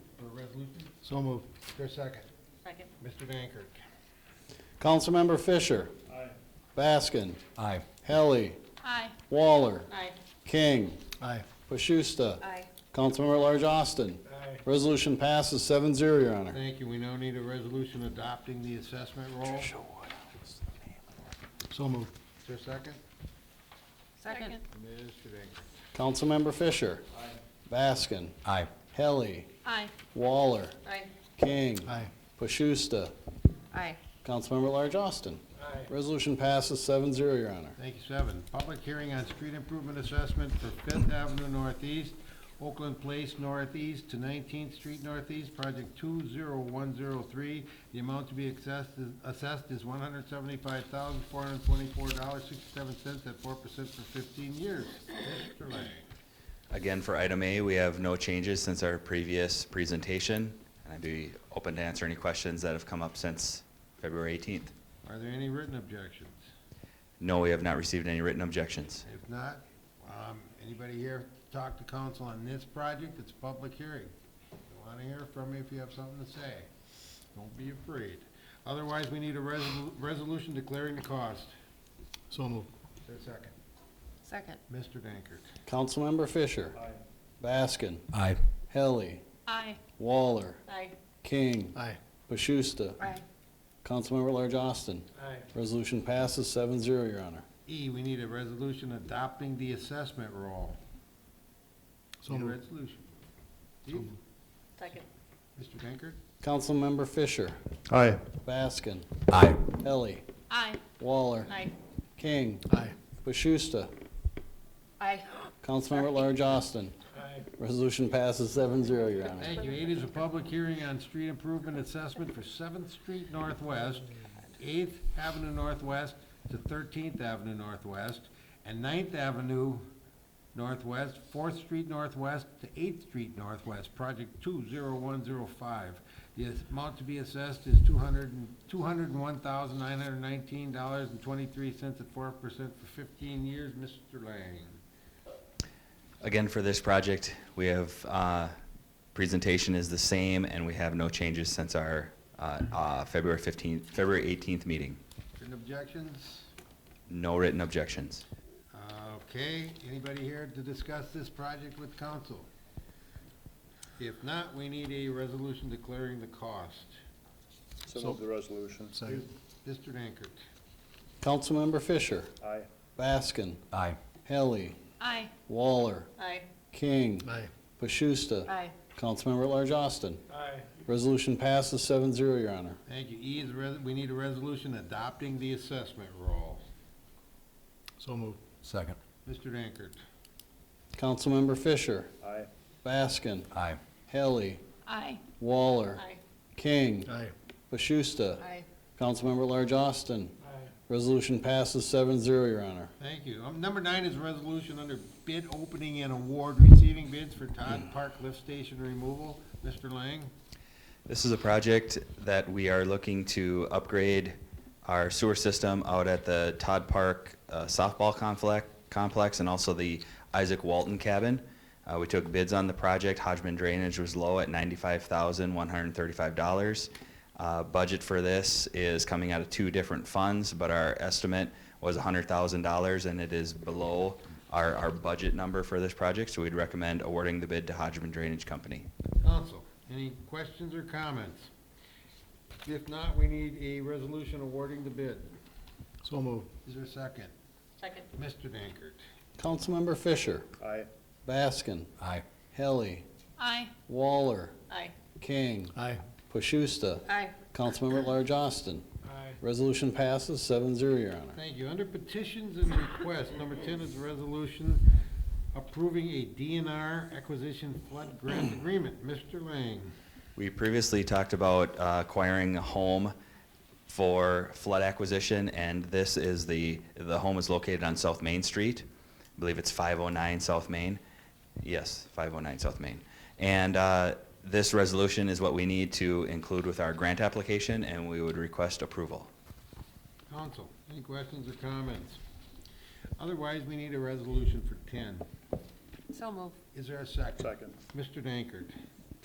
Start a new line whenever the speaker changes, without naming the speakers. So moved. Is there a second?
Second.
Mr. Dankert.
Councilmember Fisher. Baskin.
Aye.
Helly.
Aye.
Waller.
Aye.
King.
Aye.
Pashusta.
Aye.
Councilmember at Large Austin.
Aye.
Resolution passes seven zero, Your Honor.
Thank you. We now need a resolution adopting the assessment roll. So moved. Is there a second?
Second.
Mr. Dankert.
Councilmember Fisher. Baskin.
Aye.
Helly.
Aye.
Waller.
Aye.
King.
Aye.
Pashusta.
Aye.
Councilmember at Large Austin.
Aye.
Resolution passes seven zero, Your Honor.
Thank you. Seven, public hearing on street improvement assessment for Fifth Avenue Northeast, Oakland Place Northeast to Nineteenth Street Northeast, project two zero one zero three. The amount to be assessed is, assessed is one hundred seventy-five thousand, four hundred twenty-four dollars, sixty-seven cents at four percent for fifteen years. Mr. Lang.
Again, for item A, we have no changes since our previous presentation, and I'd be open to answer any questions that have come up since February 18th.
Are there any written objections?
No, we have not received any written objections.
If not, um, anybody here talk to council on this project? It's a public hearing. I want to hear from you if you have something to say. Don't be afraid. Otherwise, we need a resolu- resolution declaring the cost. So moved. Is there a second?
Second.
Mr. Dankert.
Councilmember Fisher. Baskin.
Aye.
Helly.
Aye.
Waller.
Aye.
King.
Aye.
Pashusta.
Aye.
Councilmember at Large Austin.
Aye.
Resolution passes seven zero, Your Honor.
E, we need a resolution adopting the assessment roll.
So
Need a
moved.
resolution. Steve?
Second.
Mr. Dankert?
Councilmember Fisher.
Aye.
Baskin.
Aye.
Helly.
Aye.
Waller.
Aye.
King.
Aye.
Bashusta.
Aye.
Councilmember at Large Austin.
Aye.
Resolution passes seven zero, Your Honor.
Thank you. Eight is a public hearing on street improvement assessment for Seventh Street Northwest, Eighth Avenue Northwest to Thirteenth Avenue Northwest, and Ninth Avenue Northwest, Fourth Street Northwest to Eighth Street Northwest, project two zero one zero five. The amount to be assessed is two hundred and, two hundred and one thousand nine hundred nineteen dollars and twenty-three cents at four percent for fifteen years. Mr. Lang.
Again, for this project, we have, uh, presentation is the same, and we have no changes since our uh, uh, February 15th, February 18th meeting.
Any objections?
No written objections.
Okay, anybody here to discuss this project with council? If not, we need a resolution declaring the cost.
So move the resolution.
Mr. Dankert.
Councilmember Fisher.
Aye.
Baskin.
Aye.
Helly.
Aye.
Waller.
Aye.
King.
Aye.
Pashusta.
Aye.
Councilmember at Large Austin.
Aye.
Resolution passes seven zero, Your Honor.
Thank you. E is, a res- we need a resolution adopting the assessment roll.
So moved.
Second.
Mr. Dankert.
Councilmember Fisher.
Aye.
Baskin.
Aye.
Helly.
Aye.
Waller.
Aye.
King.
Aye.
Bashusta.
Aye.
Councilmember at Large Austin.
Aye.
Resolution passes seven zero, Your Honor.
Thank you. Um, Number nine is a resolution under bid opening and award receiving bids for Todd Park Lift Station removal. Mr. Lang.
This is a project that we are looking to upgrade our sewer system out at the Todd Park uh, softball complex, complex and also the Isaac Walton cabin. Uh, we took bids on the project. Hodgman Drainage was low at ninety-five thousand, one hundred and thirty-five dollars. Uh, budget for this is coming out of two different funds, but our estimate was hundred thousand dollars and it is below our, our budget number for this project, so we'd recommend awarding the bid to Hodgman Drainage Company.
Council, any questions or comments? If not, we need a resolution awarding the bid.
So moved.
Is there a second?
Second.
Mr. Dankert.
Councilmember Fisher.
Aye.
Baskin.
Aye.
Helly.
Aye.
Waller.
Aye.
King.
Aye.
Pashusta.
Aye.
Councilmember at Large Austin.
Aye.
Resolution passes seven zero, Your Honor.
Thank you. Under petitions and requests, number ten is a resolution approving a DNR acquisition flood grant agreement. Mr. Lang.
We previously talked about uh, acquiring a home for flood acquisition, and this is the, the home is located on South Main Street. I believe it's 509 South Main. Yes, 509 South Main. And uh, this resolution is what we need to include with our grant application, and we would request approval.
Council, any questions or comments? Otherwise, we need a resolution for ten.
So move.
Is there a second?
Second.
Mr. Dankert.